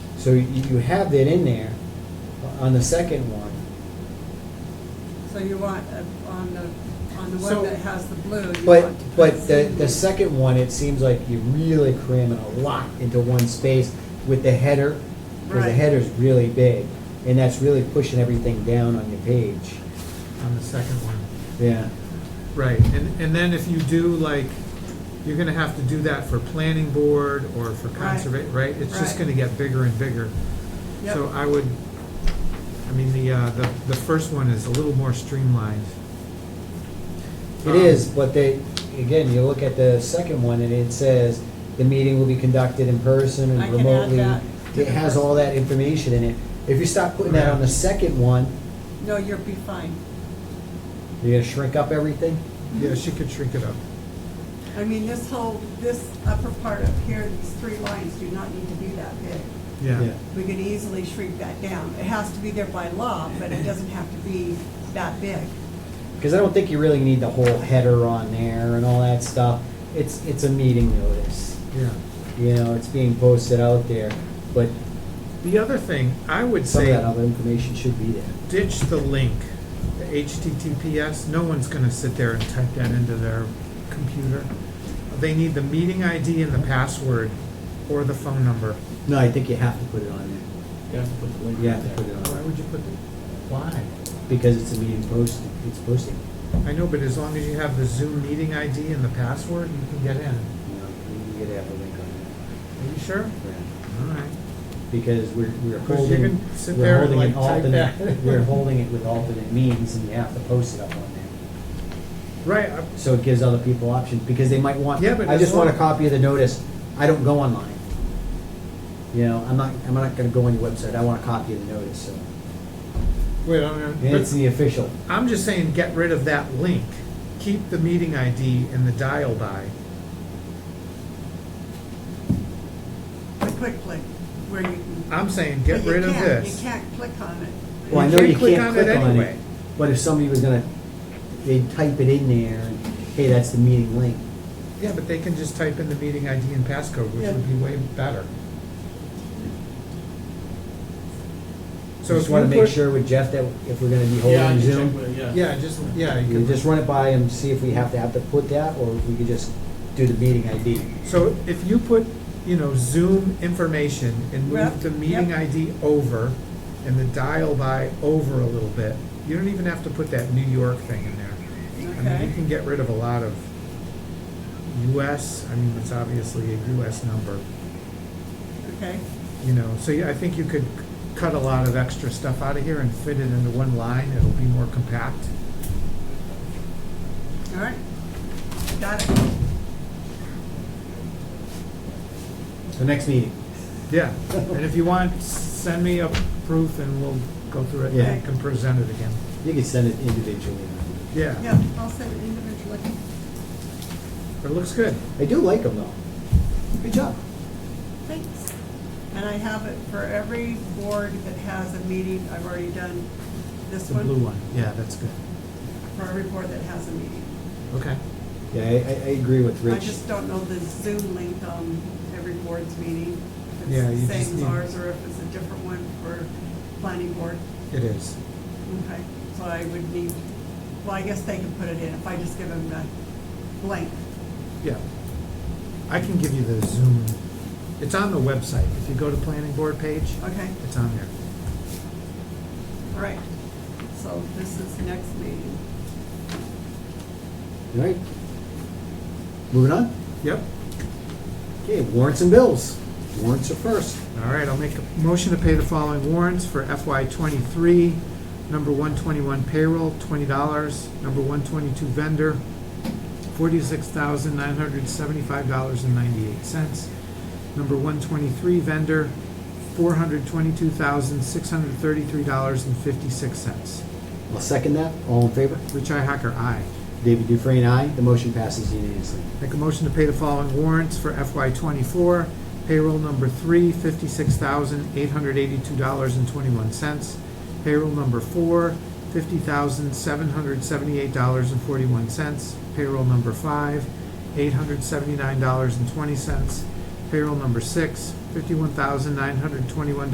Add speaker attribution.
Speaker 1: So you, you have that in there uh, on the second one.
Speaker 2: So you want, uh, on the, on the
Speaker 3: So-
Speaker 2: one that has the blue, you want.
Speaker 1: But,
Speaker 2: to
Speaker 1: but the, the
Speaker 2: proceed.
Speaker 1: second one, it seems like you're really cramming a lot into one space with the header, because the
Speaker 2: Right.
Speaker 1: header's really big, and that's really pushing everything down on your page.
Speaker 3: on the second one.
Speaker 1: Yeah,
Speaker 3: Right, and, and then if you do like, you're gonna have to do that for planning board or for
Speaker 2: Right.
Speaker 3: conserva, right? It's just
Speaker 2: Right.
Speaker 3: gonna get bigger and bigger.
Speaker 2: Yep.
Speaker 3: So I would, I mean, the, uh, the, the first one is a little more streamlined.
Speaker 2: Mm-hmm. Um,
Speaker 1: it is, but they, again, you look at the second one, and it says, the meeting will be conducted in person
Speaker 2: I
Speaker 1: and
Speaker 2: can add
Speaker 1: remotely.
Speaker 2: that.
Speaker 1: It has all that information in it. If you stop putting that on the second one,
Speaker 2: No, you'll be fine.
Speaker 1: you're gonna shrink up everything?
Speaker 3: Yeah, she could shrink it up.
Speaker 2: I mean, this whole, this upper part up here, these three lines do not need to be that big.
Speaker 3: Yeah.
Speaker 2: We could easily shrink that down. It has to be there by law, but it doesn't have to be that big.
Speaker 1: Because I don't think you really need the whole header on there and all that stuff. It's, it's a meeting notice.
Speaker 3: Yeah.
Speaker 1: You know, it's being posted out there, but
Speaker 3: The other thing, I would
Speaker 1: some of
Speaker 3: say
Speaker 1: that other information should be there.
Speaker 3: ditch the link, the HTTPS. No one's gonna sit there and type that into their computer. They need the meeting ID and the password or the phone number.
Speaker 1: No, I think you have to put it on there.
Speaker 4: You have to put the link
Speaker 1: You
Speaker 4: in
Speaker 1: have to put
Speaker 4: there.
Speaker 1: it
Speaker 3: Why
Speaker 1: on,
Speaker 3: would you put the, why?
Speaker 1: because it's a meeting post, it's posting.
Speaker 3: I know, but as long as you have the Zoom meeting ID and the password, you can get in.
Speaker 1: You know, you- you gotta have a link on
Speaker 3: Are you sure?
Speaker 1: there.
Speaker 3: All right.
Speaker 1: Because we're, we're
Speaker 3: Because you
Speaker 1: holding,
Speaker 3: can sit
Speaker 1: we're
Speaker 3: there and,
Speaker 1: holding it
Speaker 3: like, type
Speaker 1: alternate,
Speaker 3: that.
Speaker 1: we're holding it with alternate means and you have to post it up on there.
Speaker 3: Right, uh,
Speaker 1: So it gives other people options, because they might want,
Speaker 3: Yeah, but
Speaker 1: I
Speaker 3: as
Speaker 1: just want a
Speaker 3: long-
Speaker 1: copy of the notice, I don't go online. You know, I'm not, I'm not gonna go on your website, I want a copy of the notice, so,
Speaker 3: wait, I'm,
Speaker 1: and it's
Speaker 3: but
Speaker 1: the official.
Speaker 3: I'm just saying, get rid of that link. Keep the meeting ID and the dial by.
Speaker 2: The quick click, where you can.
Speaker 3: I'm saying, Uh, get
Speaker 2: But you
Speaker 3: rid of
Speaker 2: can't-
Speaker 3: this.
Speaker 2: You can't click on it.
Speaker 1: Well, I
Speaker 3: You
Speaker 1: know
Speaker 3: can't
Speaker 1: you
Speaker 3: click
Speaker 1: can't
Speaker 3: on it
Speaker 1: click on
Speaker 3: anyway.
Speaker 1: it, but if somebody was gonna, they'd type it in there, and, hey, that's the meeting link.
Speaker 3: Yeah, but they can just type in the meeting ID and passcode, which
Speaker 2: Yeah.
Speaker 3: would be way better. So
Speaker 1: So
Speaker 3: if
Speaker 1: just wanna
Speaker 3: you
Speaker 1: make
Speaker 3: put-
Speaker 1: sure with Jeff that if we're gonna be
Speaker 4: Yeah, I
Speaker 1: holding
Speaker 4: can check
Speaker 1: Zoom,
Speaker 4: with it, yeah.
Speaker 3: Yeah, just, yeah, you
Speaker 1: you
Speaker 3: can.
Speaker 1: just run it by and see if we have to have to put that, or if we could just do the meeting ID.
Speaker 3: So if you put, you know, Zoom information and
Speaker 2: Yep,
Speaker 3: move the meeting
Speaker 2: yep.
Speaker 3: ID over and the dial by over a little bit, you don't even have to put that New York thing in there. I mean,
Speaker 2: Okay.
Speaker 3: you can get rid of a lot of US, I mean, it's obviously a US number,
Speaker 2: Okay,
Speaker 3: you know, so yeah, I think you could cut a lot of extra stuff out of here and fit it into one line, it'll be more compact.
Speaker 2: all right. Got it.
Speaker 1: So next meeting.
Speaker 3: Yeah, and if you want, send me a proof and we'll go through it
Speaker 1: Yeah.
Speaker 3: and can present it again.
Speaker 1: You can send it individually.
Speaker 2: Yeah, I'll send it individually.
Speaker 3: It looks good.
Speaker 1: I do like them though. Good job.
Speaker 2: Thanks. And I have it for every board that has a meeting. I've already done this
Speaker 3: The
Speaker 2: one.
Speaker 3: blue one, yeah, that's good.
Speaker 2: For every board that has a meeting.
Speaker 3: Okay.
Speaker 1: Yeah, I, I I agree with
Speaker 2: I
Speaker 1: Rich.
Speaker 2: just don't know the Zoom link on every board's meeting. If
Speaker 3: Yeah,
Speaker 2: it's
Speaker 3: you
Speaker 2: the
Speaker 3: just
Speaker 2: same as
Speaker 3: need-
Speaker 2: ours or if it's a different one for planning board.
Speaker 3: It is.
Speaker 2: Okay, so I would need, well, I guess they can put it in if I just give them the blank.
Speaker 3: Yeah. I can give you the Zoom. It's on the website. If you go to planning board page,
Speaker 2: Okay,
Speaker 3: it's on there.
Speaker 2: all right. So this is next meeting.
Speaker 1: All right. Moving on.
Speaker 3: Yep.
Speaker 1: Okay, warrants and bills. Warrants are first.
Speaker 3: All right, I'll make a motion to pay the following warrants for FY twenty-three. Number one twenty-one payroll, twenty dollars. Number one twenty-two vendor, forty-six thousand nine hundred seventy-five dollars and ninety-eight cents. Number one twenty-three vendor, four hundred twenty-two thousand six hundred thirty-three dollars and fifty-six cents.
Speaker 1: I'll second that. All in favor?
Speaker 3: Richi Hacker, aye.
Speaker 1: David Dufresne, aye. The motion passes unanimously.
Speaker 3: Make a motion to pay the following warrants for FY twenty-four. Payroll number three, fifty-six thousand, eight hundred eighty-two dollars and twenty-one cents. Payroll number four, fifty thousand, seven hundred seventy-eight dollars and forty-one cents. Payroll number five, eight hundred seventy-nine dollars and twenty cents. Payroll number six, fifty-one thousand, nine hundred twenty-one